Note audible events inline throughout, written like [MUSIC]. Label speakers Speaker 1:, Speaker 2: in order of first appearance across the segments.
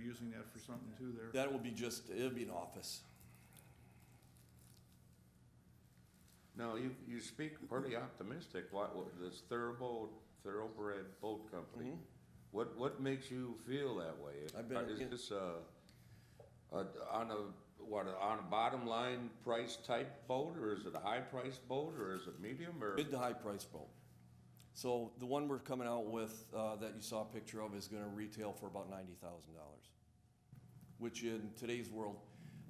Speaker 1: using that for something too there.
Speaker 2: That will be just, it'll be an office.
Speaker 3: Now, you, you speak pretty optimistic, like what, this thoroughbred, thoroughbred boat company. What, what makes you feel that way?
Speaker 2: I've been-
Speaker 3: Is this, uh, uh, on a, what, on a bottom line price type boat, or is it a high price boat, or is it medium, or?
Speaker 2: Mid to high price boat. So the one we're coming out with, uh, that you saw a picture of is gonna retail for about ninety thousand dollars. Which in today's world,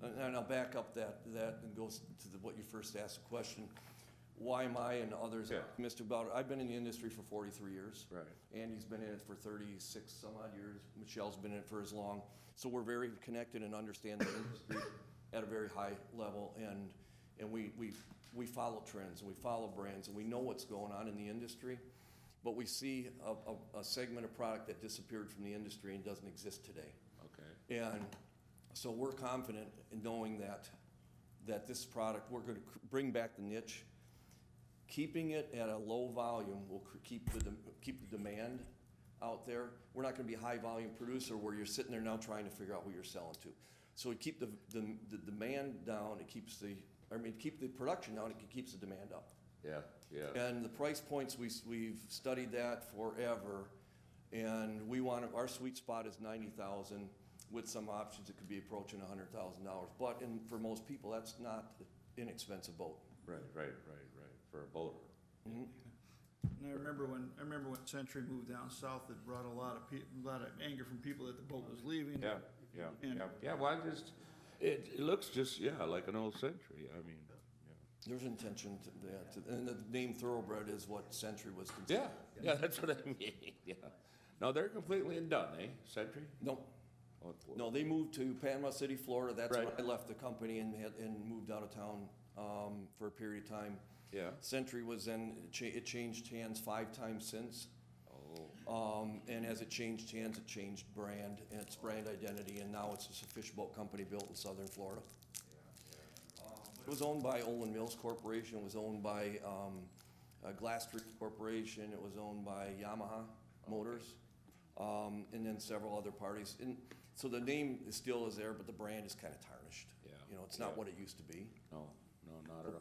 Speaker 2: and and I'll back up that, that and goes to the, what you first asked the question. Why am I and others
Speaker 3: Yeah.
Speaker 2: optimistic about it? I've been in the industry for forty-three years.
Speaker 3: Right.
Speaker 2: Andy's been in it for thirty-six some odd years. Michelle's been in it for as long. So we're very connected and understand the industry at a very high level. And, and we, we, we follow trends and we follow brands and we know what's going on in the industry. But we see a, a, a segment of product that disappeared from the industry and doesn't exist today.
Speaker 3: Okay.
Speaker 2: And so we're confident in knowing that, that this product, we're gonna cr- bring back the niche. Keeping it at a low volume will cr- keep the, dem- keep the demand out there. We're not gonna be a high volume producer where you're sitting there now trying to figure out who you're selling to. So we keep the, the, the demand down, it keeps the, I mean, keep the production down, it keeps the demand up.
Speaker 3: Yeah, yeah.
Speaker 2: And the price points, we, we've studied that forever, and we want, our sweet spot is ninety thousand. With some options, it could be approaching hundred thousand dollars, but, and for most people, that's not an inexpensive boat.
Speaker 3: Right, right, right, right, for a boater.
Speaker 1: And I remember when, I remember when Century moved down south, it brought a lot of peo, a lot of anger from people that the boat was leaving.
Speaker 3: Yeah, yeah,
Speaker 1: And-
Speaker 3: yeah, yeah, well, I just, it, it looks just, yeah, like an old century, I mean, yeah.
Speaker 2: There's intention to, yeah, to- and the name thoroughbred is what Century was considered.
Speaker 3: Yeah, yeah, that's what I mean, [LAUGHS] yeah. No, they're completely done, eh, Sentry?
Speaker 2: No,
Speaker 3: Oh,
Speaker 2: no, they moved to Panama City, Florida, that's when
Speaker 3: Right.
Speaker 2: I left the company and had, and moved out of town, um, for a period of time.
Speaker 3: Yeah,
Speaker 2: Century was then, it cha- it changed hands five times since.
Speaker 3: oh,
Speaker 2: Um, and as it changed hands, it changed brand and its brand identity, and now it's just a fishboat company built in southern Florida. It was owned by Olin Mills Corporation, it was owned by, um, uh, Glass Street Corporation, it was owned by Yamaha Motors, um, and then several other parties. And so the name is still is there, but the brand is kinda tarnished.
Speaker 3: Yeah.
Speaker 2: You know, it's not
Speaker 3: Yeah.
Speaker 2: what it used to be.
Speaker 3: no, no, not at all.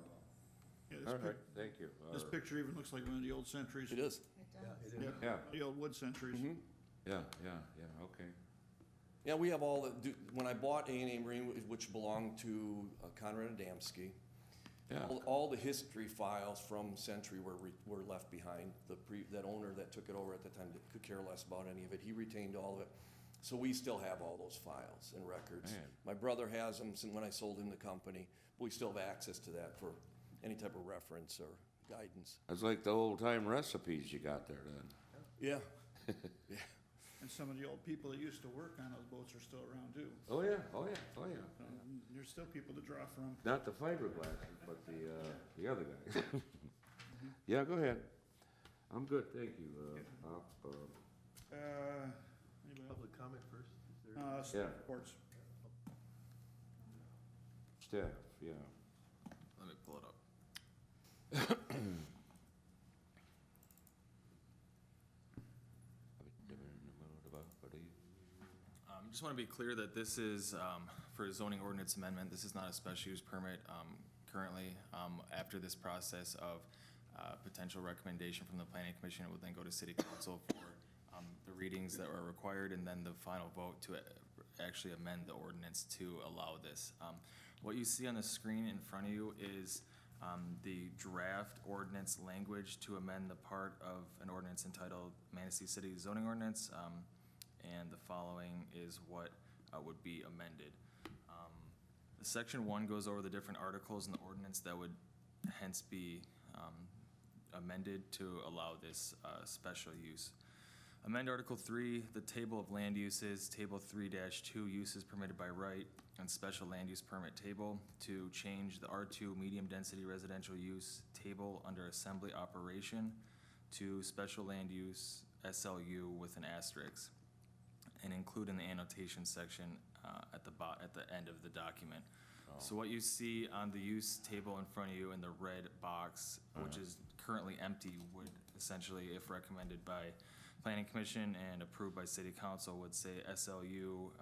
Speaker 1: Yeah, this
Speaker 3: All
Speaker 1: pic-
Speaker 3: right, thank you. All
Speaker 1: This
Speaker 3: right.
Speaker 1: picture even looks like one of the old Centuries.
Speaker 2: It is.
Speaker 1: Yeah,
Speaker 3: Yeah, Mm-hmm.
Speaker 1: the old wood Centuries.
Speaker 3: yeah, yeah, yeah, okay.
Speaker 2: Yeah, we have all the, do- when I bought A and A Marine, wh- which belonged to uh, Conrad Adamski,
Speaker 3: Yeah.
Speaker 2: all, all the history files from Century were, re- were left behind. The pre, that owner that took it over at the time did- could care less about any of it. He retained all of it. So we still have all those files and records.
Speaker 3: Man.
Speaker 2: My brother has them since when I sold him the company. but We still have access to that for any type of reference or guidance.
Speaker 3: That's like the old time recipes you got there then.
Speaker 2: Yeah,
Speaker 1: And some of the old people that used to work on those boats are still around too.
Speaker 3: Oh, yeah, oh, yeah, oh, yeah.
Speaker 1: Um, There's still people to draw from.
Speaker 3: Not the fiberglass, but the, uh, the other guy. Yeah, go ahead. I'm good, thank you, uh, Bob, uh,
Speaker 1: Uh, anybody else?
Speaker 4: Public comment first? Is there-
Speaker 1: Uh, s-
Speaker 3: Yeah.
Speaker 1: reports.
Speaker 3: staff, yeah.
Speaker 5: Let me pull
Speaker 3: [COUGHS]
Speaker 5: it up. Um, just want to be clear that this is, um, for a zoning ordinance amendment, this is not a special use permit, um, currently. Um, after this process of, uh, potential recommendation from the planning commission, it would then go to city council for, um, the readings that are required and then the final vote to a- actually amend the ordinance to allow this. Um, what you see on the screen in front of you is, um, the draft ordinance language to amend the part of an ordinance entitled Manistee City zoning ordinance. Um, and the following is what uh, would be amended. Um, Section one goes over the different articles in the ordinance that would hence be um, amended to allow this uh, special use. Amend Article three, the table of land uses, Table three two, uses permitted by right, and special land use permit table to change the R two medium-density residential use table under assembly operation to special land use SLU with an asterisk and include in the annotation section uh, at the bo, at the end of the document. So what you see on the use table in front of you in the red box, which is currently empty, would essentially, if recommended by planning commission and approved by city council, would say SLU